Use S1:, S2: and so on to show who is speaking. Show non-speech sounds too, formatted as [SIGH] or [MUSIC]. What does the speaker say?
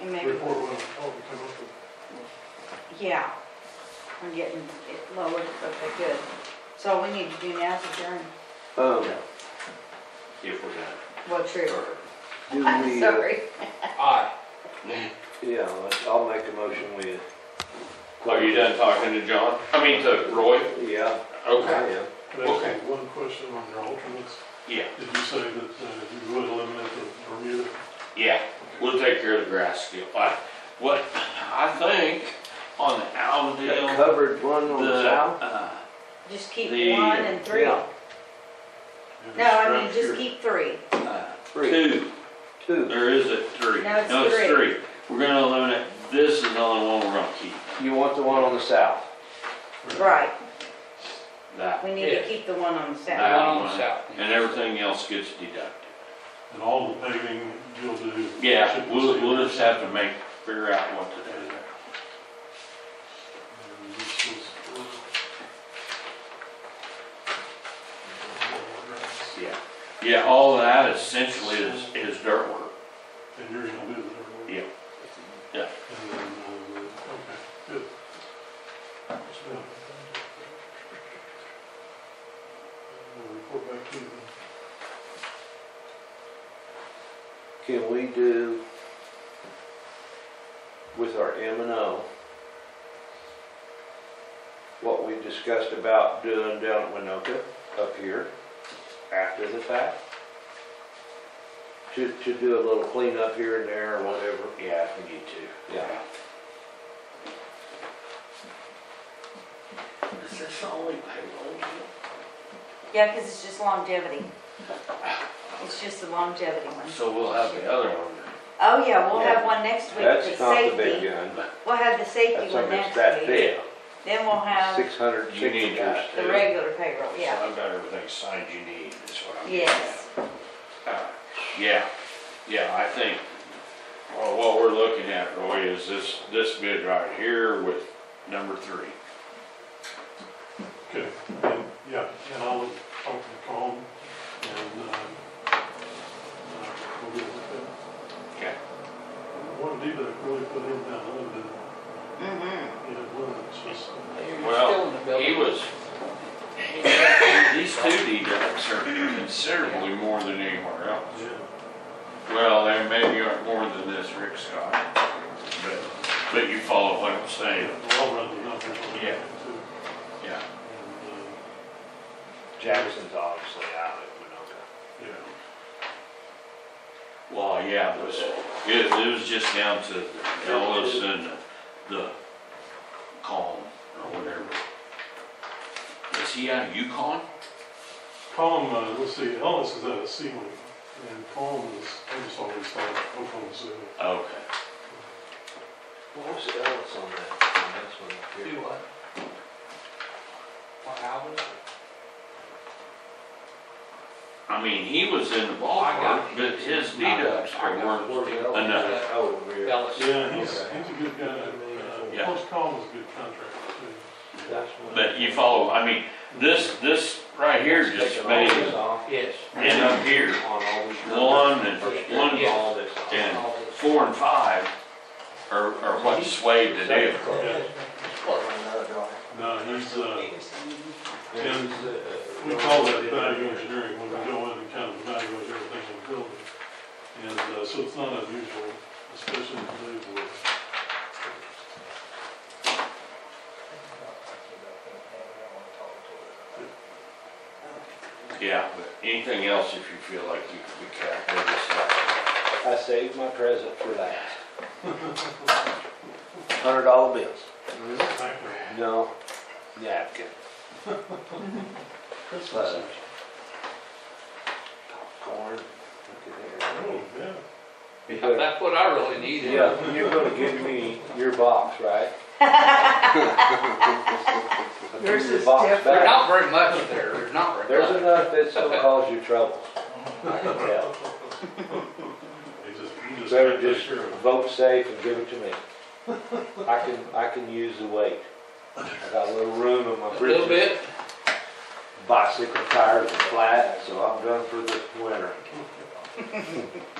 S1: and maybe,
S2: report when it's all come up with.
S1: yeah, we're getting it lowered, okay, good. So all we need to do now is adjourn.
S3: Um,
S4: If we're done.
S1: Well, true.
S4: Or-
S1: [LAUGHS]
S3: do
S1: I'm
S3: we, uh,
S1: sorry.
S4: Aye.
S3: [LAUGHS] yeah, I'll make a motion with.
S4: Are you done talking to John? I mean to Roy?
S3: Yeah, I
S4: Okay.
S3: am.
S2: Can I ask
S4: Okay.
S2: you one question on your alternates?
S4: Yeah,
S2: Did you say that uh, you would eliminate the Bermuda?
S4: yeah, we'll take care of the grass still. I, what, I think on the
S3: That
S4: Allendale,
S3: covered one on the
S4: the,
S3: south?
S4: uh,
S1: Just keep
S4: The-
S1: one and three.
S3: yeah.
S1: No, I mean, just keep three.
S4: uh,
S3: Three,
S4: two,
S3: two.
S4: there is a three.
S1: No, it's
S4: three. We're gonna eliminate, this is the only one we're gonna keep,
S3: You want the one on the south?
S1: Right,
S4: that.
S1: we need to
S5: Yeah.
S1: keep the one on the south.
S4: that
S5: Down
S4: one,
S5: south.
S4: And everything else gets deducted.
S2: And all the paving you'll do?
S4: Yeah,
S2: should be
S4: we'll,
S2: same.
S4: we'll just have to make, figure out what to do there.
S2: And this is, uh,
S4: Yeah, yeah, all of that essentially is, is dirt work.
S2: And you're gonna do the.
S4: Yeah. Yeah.
S2: And then, uh, okay, good. That's good. We'll report back to you.
S3: Can we do with our M and O what we discussed about doing down at Winoka up here after the fact? To, to do a little cleanup here and there or whatever?
S4: Yeah, if we need to.
S3: Yeah.
S4: Is this the only payroll deal?
S1: Yeah, because it's just longevity. It's just the longevity one.
S4: So we'll have the other one.
S1: Oh, yeah, we'll
S3: Yeah.
S1: have one next week, the
S3: That's not the big
S1: safety.
S3: gun.
S1: We'll have the
S3: That's
S1: safety one
S3: something that's
S1: next
S3: that
S1: week.
S3: big.
S1: Then we'll have
S3: Six hundred
S4: You need
S3: signatures.
S4: that.
S1: the regular payroll,
S4: So
S1: yeah.
S4: I've got everything signed you need, is what I'm. getting
S1: Yes,
S4: at. Uh, Yeah, yeah, I think, well, what we're looking at, Roy, is this, this bid right here with number three.
S2: Okay, and, yeah, and I'll talk to Tom and, uh, uh, we'll get with them.
S4: Okay.
S2: One deal that really put him down, other than,
S1: mm-hmm,
S2: you know, one that's just,
S5: Still in the building.
S4: He was, these two deducts are considerably more than anywhere else.
S2: yeah.
S4: Well, there may be more than this, Rick Scott, but, but you follow what I'm saying,
S2: Well, I'll run the numbers on
S4: Yeah.
S2: that too.
S4: yeah.
S2: And, uh,
S3: Jackson's obviously out at
S2: yeah,
S4: Well, yeah, it was, it, it was just down to Ellis and the, the Calm or whatever. Is he out of Yukon?
S2: Colm, uh, let's see, Ellis is out of Sealing, and Colm is, I just always thought Oklahoma City.
S4: Okay.
S3: Winoka. What was the else on that, on this one up here?
S5: Do what? What album?
S4: I mean, he was in the
S5: I
S4: ballpark,
S5: got it.
S4: but his deducts
S5: I got
S4: weren't,
S5: it.
S4: enough.
S3: Oh, over here.
S5: Dallas.
S2: Yeah, he's, he's a good guy, uh,
S4: Yeah.
S2: plus Colm is a good contractor too.
S3: That's one.
S4: but you follow, I mean, this, this right here just
S3: Taking all
S4: made
S3: this
S4: it
S3: off
S5: Yes.
S4: end up here.
S3: on all these numbers.
S4: One and, one
S3: Taking all this off.
S4: and four and five are, are what swayed the deal.
S2: No, he's, uh,
S3: And,
S2: we
S3: uh,
S2: call that value engineering, when we go in and kind of evaluate everything in the building. And, uh, so it's not unusual, especially in today's world.
S4: Yeah, but anything else, if you feel like you could be careful with this stuff.
S3: I saved my present for last. Hundred dollar bills.
S2: Thank you.
S3: No, napkin.
S1: [LAUGHS]
S2: Christmas.
S3: Fudge. Popcorn.
S2: Oh, yeah.
S3: Look at there.
S5: That's what I really needed.
S3: Yeah, you're gonna give me your box, right?
S1: [LAUGHS] Yours is
S3: Your box
S1: different.
S5: There's
S3: back.
S5: not very much there, there's not very
S3: There's
S5: much.
S3: enough that's gonna cause you trouble. I
S1: [LAUGHS]
S3: can tell.
S2: He just, he just.
S3: Better
S2: got that
S3: just
S2: share of-
S3: vote safe and give it to me. I can, I can use the weight. I got a little room in my
S5: A little
S3: britches.
S5: bit,
S3: Bicycle tires are flat, so I'm done for the winter.